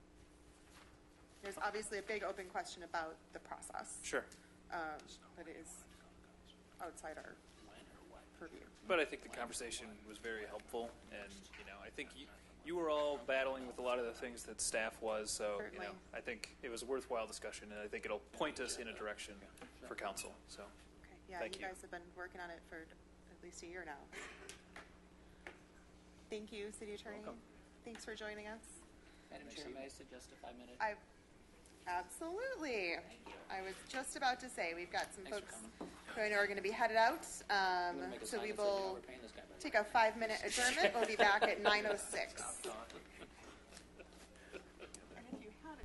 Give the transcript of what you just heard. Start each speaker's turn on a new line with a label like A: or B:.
A: obviously a big open question about the process.
B: Sure.
A: Um, But it is outside our purview.
B: But I think the conversation was very helpful, and you know, I think you, you were all battling with a lot of the things that staff was, so you know,
A: Certainly.
B: I think it was a worthwhile discussion, and I think it'll point us in a direction for council. So,
A: Okay, yeah,
B: Thank
A: you
B: you.
A: guys have been working on it for at least a year now. Thank you, City Attorney.
C: welcome.
A: Thanks for joining us.
C: Madam Chair, may I suggest a five-minute?
A: I, absolutely. I was just about to say, we've got some
C: Thanks for
A: folks who I know are going to be headed out. um,
C: I'm gonna make a
A: So
C: sign
A: we
C: that says, you know,
A: will
C: we're paying this guy by the
A: take
C: word.
A: a five-minute adjournment. We'll be back at 9:06.